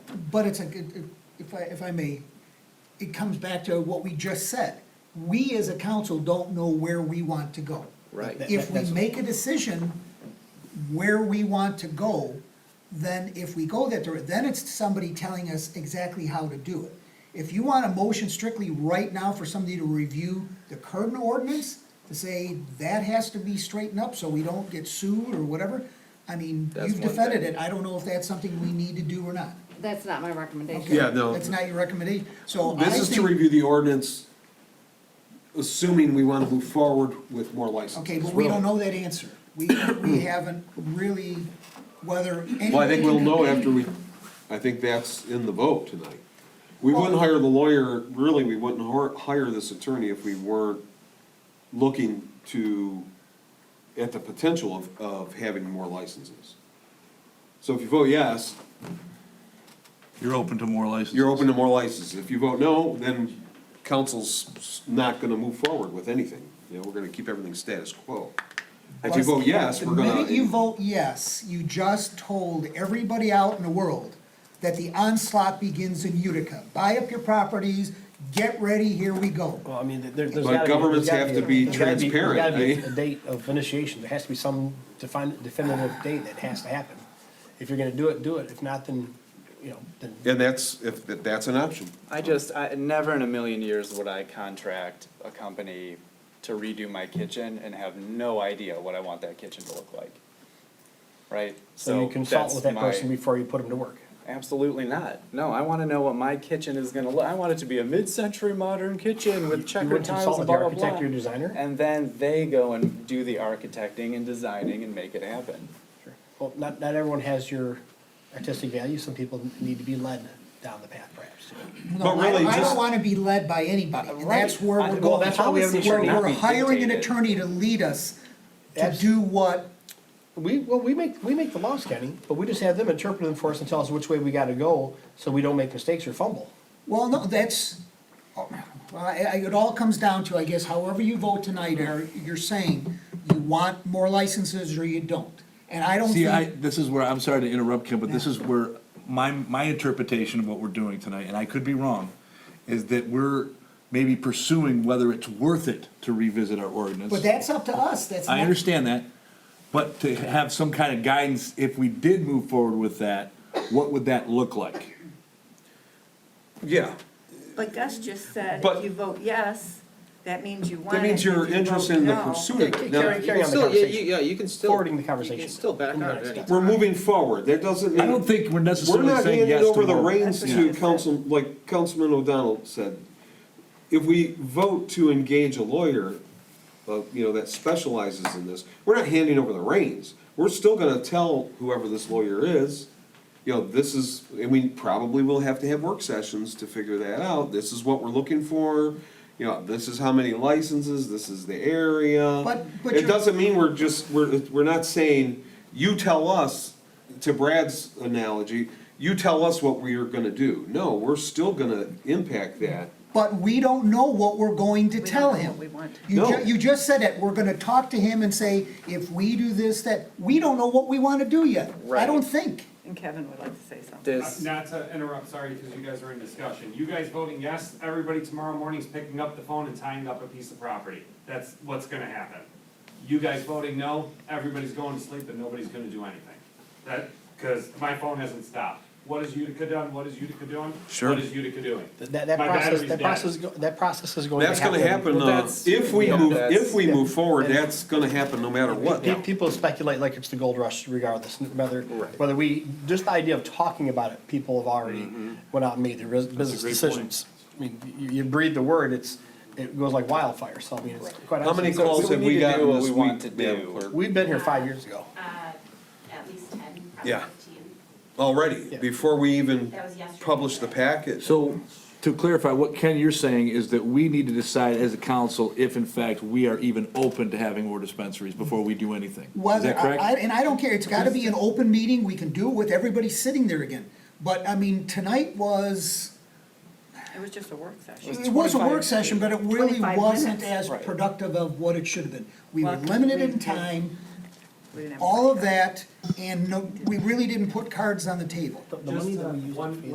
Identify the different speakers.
Speaker 1: But it's a, it- it- if I, if I may, it comes back to what we just said. We as a council don't know where we want to go.
Speaker 2: Right. That-
Speaker 1: If we
Speaker 3: that's-
Speaker 1: make a decision where we want to go, then if we go that, dir- then it's somebody telling us exactly how to do it. If you want a motion strictly right now for somebody to review the current ordinance, to say that has to be straightened up so we don't get sued or whatever, I mean,
Speaker 2: That's
Speaker 1: you've
Speaker 2: one
Speaker 1: defended
Speaker 2: thing.
Speaker 1: it, I don't know if that's something we need to do or not.
Speaker 4: That's not my recommendation.
Speaker 1: Okay,
Speaker 5: Yeah, no.
Speaker 1: That's not your recommendation, so I
Speaker 5: This is to
Speaker 1: think,
Speaker 5: review the ordinance, assuming we want to move forward with more licenses.
Speaker 1: okay, but we don't know that answer. We, we haven't really, whether anybody.
Speaker 5: Well, I think we'll
Speaker 1: can-
Speaker 5: know after we, I think that's in the vote tonight. We wouldn't hire the lawyer, really, we wouldn't hor- hire this attorney if we weren't looking to, at the potential of, of having more licenses. So if you vote yes,
Speaker 6: You're open to more licenses?
Speaker 5: you're open to more licenses. If you vote no, then council's s- not gonna move forward with anything. You know, we're gonna keep everything status quo. If you vote yes, we're
Speaker 1: The
Speaker 5: gonna.
Speaker 1: minute you vote yes, you just told everybody out in the world that the onslaught begins in Utica. Buy up your properties, get ready, here we go.
Speaker 3: Well, I mean, there, there's
Speaker 5: But
Speaker 3: gotta be.
Speaker 5: governments
Speaker 3: there's
Speaker 5: have
Speaker 3: gotta
Speaker 5: to be
Speaker 3: there's gotta there's
Speaker 5: transparent,
Speaker 3: gotta be
Speaker 5: eh?
Speaker 3: A date of initiation, there has to be some defined, definitive date that has to happen. If you're gonna do it, do it, if not, then, you know, then.
Speaker 5: And that's, if, that's an option.
Speaker 2: I just, I, never in a million years would I contract a company to redo my kitchen and have no idea what I want that kitchen to look like. Right?
Speaker 3: So you consult
Speaker 2: that's
Speaker 3: with that
Speaker 2: my-
Speaker 3: person before you put them to work.
Speaker 2: Absolutely not. No, I wanna know what my kitchen is gonna look, I want it to be a mid-century modern kitchen with
Speaker 3: You
Speaker 2: checkered
Speaker 3: would
Speaker 2: tiles and
Speaker 3: consult with the
Speaker 2: blah, blah, blah.
Speaker 3: architect or designer?
Speaker 2: And then they go and do the architecting and designing and make it happen.
Speaker 3: Sure. Well, not, not everyone has your artistic value, some people need to be led down the path perhaps.
Speaker 1: No, I
Speaker 5: really
Speaker 1: don't, I don't
Speaker 5: just-
Speaker 1: wanna be led by anybody, and
Speaker 2: Right.
Speaker 1: that's where
Speaker 2: I-
Speaker 1: we're
Speaker 2: well,
Speaker 1: going.
Speaker 2: that's why we have an
Speaker 1: Where
Speaker 2: attorney, not
Speaker 1: We're
Speaker 2: be
Speaker 1: hiring an
Speaker 2: dictated.
Speaker 1: attorney to lead us to
Speaker 3: Abs-
Speaker 1: do what
Speaker 3: We, well, we make, we make the laws, Kenny, but we just have them interpret them for us and tell us which way we gotta go, so we don't make mistakes or fumble.
Speaker 1: Well, no, that's, oh, well, I, I, it all comes down to, I guess, however you vote tonight, are, you're saying you want more licenses or you don't. And I don't
Speaker 6: See, I,
Speaker 1: think,
Speaker 6: this is where, I'm sorry to interrupt, Kim, but this is where my, my interpretation of what we're doing tonight, and I could be wrong, is that we're maybe pursuing whether it's worth it to revisit our ordinance.
Speaker 1: but that's up to us, that's not.
Speaker 6: I understand that, but to have some kind of guidance, if we did move forward with that, what would that look like?
Speaker 5: Yeah,
Speaker 7: But Gus just said,
Speaker 5: But-
Speaker 7: if you vote yes, that means you want it.
Speaker 5: that means
Speaker 7: If
Speaker 5: you're
Speaker 7: you
Speaker 5: interested
Speaker 7: vote
Speaker 5: in the
Speaker 7: no-
Speaker 5: pursuit of it.
Speaker 3: Carry,
Speaker 5: Now,
Speaker 3: carry on the
Speaker 8: Still, yeah,
Speaker 3: conversation.
Speaker 8: you, yeah, you can still.
Speaker 3: Forwarding the
Speaker 8: You
Speaker 3: conversation.
Speaker 8: can still back
Speaker 3: Moving
Speaker 8: out
Speaker 3: on.
Speaker 8: at any time.
Speaker 5: We're moving forward, that doesn't mean.
Speaker 6: I don't think we're
Speaker 5: We're
Speaker 6: necessarily
Speaker 5: not
Speaker 6: saying yes
Speaker 5: handing
Speaker 6: to
Speaker 5: over the
Speaker 6: more.
Speaker 5: reins
Speaker 7: That's
Speaker 5: to
Speaker 7: right.
Speaker 5: council, like Councilman O'Donnell said. If we vote to engage a lawyer, uh, you know, that specializes in this, we're not handing over the reins. We're still gonna tell whoever this lawyer is, you know, this is, and we probably will have to have work sessions to figure that out. This is what we're looking for, you know, this is how many licenses, this is the area.
Speaker 1: But- but
Speaker 5: It
Speaker 1: you're-
Speaker 5: doesn't mean we're just, we're, we're not saying, you tell us, to Brad's analogy, you tell us what we are gonna do. No, we're still gonna impact that.
Speaker 1: But we don't know what we're going to
Speaker 7: We don't
Speaker 1: tell
Speaker 7: know
Speaker 1: him.
Speaker 7: what we want.
Speaker 1: You
Speaker 5: No.
Speaker 1: ju- you just said it, we're gonna talk to him and say, if we do this, that, we don't know what we wanna do yet. I
Speaker 2: Right.
Speaker 1: don't think.
Speaker 7: And Kevin would like to say something.
Speaker 9: Uh,
Speaker 2: This,
Speaker 9: Not to interrupt, sorry, because you guys are in discussion. You guys voting yes, everybody tomorrow morning's picking up the phone and tying up a piece of property. That's what's gonna happen. You guys voting no, everybody's going to sleep and nobody's gonna do anything. That, because my phone hasn't stopped. What is Utica done? What is Utica doing?
Speaker 6: Sure.
Speaker 9: What is Utica doing?
Speaker 3: That, that
Speaker 9: My
Speaker 3: process,
Speaker 9: battery's
Speaker 3: that
Speaker 9: dead.
Speaker 3: process, go- that process is going to
Speaker 5: That's
Speaker 3: happen.
Speaker 5: gonna happen,
Speaker 2: Well,
Speaker 5: uh,
Speaker 2: that's-
Speaker 5: if we
Speaker 2: yeah,
Speaker 5: move,
Speaker 2: that's-
Speaker 5: if we move forward, that's gonna happen no matter what.
Speaker 3: Pe- People speculate like it's the gold rush regardless, whether,
Speaker 2: Right.
Speaker 3: whether we, just the idea of talking about it, people have already went out and made their bus- business
Speaker 5: Mm-hmm. great
Speaker 3: decisions. I mean, you, you breathe the word, it's, it goes like wildfire, so I mean, it's quite.
Speaker 5: How many
Speaker 3: honestly-
Speaker 5: calls
Speaker 2: we
Speaker 5: have
Speaker 2: need
Speaker 5: we
Speaker 2: to do
Speaker 5: gotten
Speaker 2: what
Speaker 5: this
Speaker 2: we want
Speaker 5: week,
Speaker 2: to
Speaker 5: Madam
Speaker 2: do.
Speaker 5: Clerk?
Speaker 3: We've been here five years ago.
Speaker 10: at least ten,
Speaker 5: Yeah.
Speaker 10: probably fifteen.
Speaker 5: Already,
Speaker 3: Yeah.
Speaker 5: before we even
Speaker 10: That was yesterday.
Speaker 5: publish the package.
Speaker 6: So, to clarify, what Ken, you're saying is that we need to decide as a council if in fact we are even open to having more dispensaries before we do anything. Is
Speaker 1: Whether,
Speaker 6: that
Speaker 1: I, I-
Speaker 6: correct?
Speaker 1: and I don't care, it's gotta be an open meeting, we can do it with everybody sitting there again. But, I mean, tonight was,
Speaker 7: It was just a work session.
Speaker 1: it was a work session, but it really
Speaker 7: 25
Speaker 1: wasn't
Speaker 7: minutes.
Speaker 1: as productive of what it should have been. We were
Speaker 7: Well,
Speaker 1: limited
Speaker 7: we
Speaker 1: in
Speaker 7: did-
Speaker 1: time,
Speaker 7: We didn't have a
Speaker 1: all
Speaker 7: work
Speaker 1: of that, and no, we really didn't put cards on the table.
Speaker 3: The money that we
Speaker 9: Just, uh,
Speaker 3: used to
Speaker 9: one-
Speaker 3: pay